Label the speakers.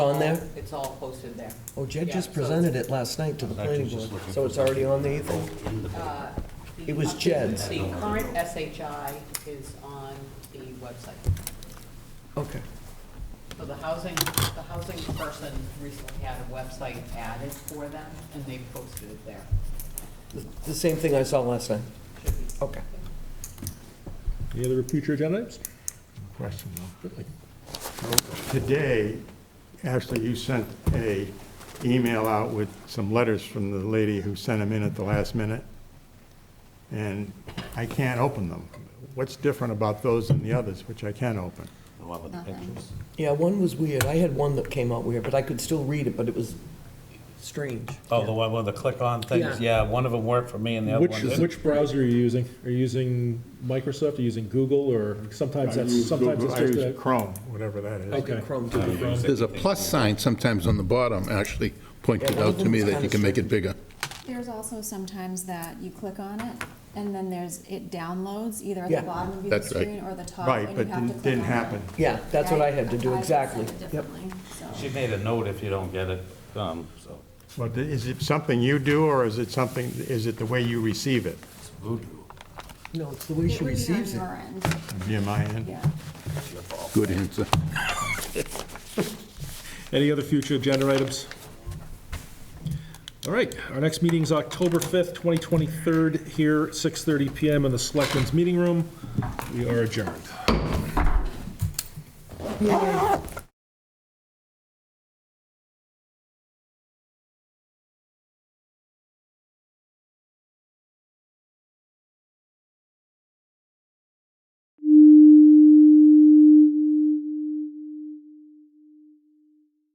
Speaker 1: On there?
Speaker 2: It's all posted there.
Speaker 1: Oh, Jed
Speaker 2: Yeah,
Speaker 1: just
Speaker 2: so-
Speaker 1: presented it last night to the
Speaker 3: I was
Speaker 1: planning
Speaker 3: actually just
Speaker 1: board,
Speaker 3: looking
Speaker 1: so
Speaker 3: for
Speaker 1: it's already on the Ethan?
Speaker 3: In the book.
Speaker 2: Uh, the
Speaker 1: It was
Speaker 2: updated-
Speaker 1: Jed's.
Speaker 2: The current SHI is on the website.
Speaker 1: Okay.
Speaker 2: So the housing, the housing person recently had a website added for them, and they posted it there.
Speaker 1: The- The same thing I saw last night.
Speaker 2: Should be-
Speaker 1: Okay.
Speaker 4: Any other future agenda items?
Speaker 5: question though. Today, Ashley, you sent a email out with some letters from the lady who sent them in at the last minute, and I can't open them. What's different about those than the others, which I can open?
Speaker 3: The one with the pictures.
Speaker 1: Yeah, one was weird. I had one that came out weird, but I could still read it, but it was strange.
Speaker 6: Oh, the one with the click-on things?
Speaker 1: Yeah.
Speaker 6: Yeah, one of them worked for me and the other
Speaker 4: Which,
Speaker 6: one didn't.
Speaker 4: which browser are you using? Are you using Microsoft, are you using Google, or sometimes
Speaker 5: I
Speaker 4: that's,
Speaker 5: use
Speaker 4: sometimes
Speaker 5: Google-
Speaker 4: it's
Speaker 5: I
Speaker 4: just
Speaker 5: use
Speaker 4: a.
Speaker 5: Chrome, whatever that is.
Speaker 4: Okay.
Speaker 1: Chrome too.
Speaker 7: There's a plus sign sometimes on the bottom, actually pointed
Speaker 1: Yeah, one of
Speaker 7: out to me
Speaker 1: them's
Speaker 7: that you
Speaker 1: kinda
Speaker 7: can make it bigger.
Speaker 8: There's also sometimes that you click on it, and then there's, it downloads either at
Speaker 1: Yeah.
Speaker 8: the bottom of your
Speaker 7: That's right.
Speaker 8: screen or the top.
Speaker 5: Right,
Speaker 8: and you
Speaker 5: but
Speaker 8: have to
Speaker 5: didn't
Speaker 8: click
Speaker 5: didn't
Speaker 8: on it.
Speaker 5: happen.
Speaker 1: Yeah, that's what I
Speaker 8: Right?
Speaker 1: had to do,
Speaker 8: I- I
Speaker 1: exactly.
Speaker 8: said it
Speaker 1: Yep.
Speaker 8: differently, so.
Speaker 6: She made a note if you don't get it, um, so,
Speaker 5: But is it something you do, or is it something, is it the way you receive it?
Speaker 6: it's voodoo.
Speaker 1: No, it's the way
Speaker 8: It
Speaker 1: she
Speaker 8: would be on
Speaker 1: receives it.
Speaker 8: your end,
Speaker 5: Via my end?
Speaker 8: yeah.
Speaker 7: Good answer.
Speaker 4: Any other future agenda items? All right, our next meeting is October 5th, 2023, here, 6:30 PM in the Selectmen's Meeting Room. We are adjourned.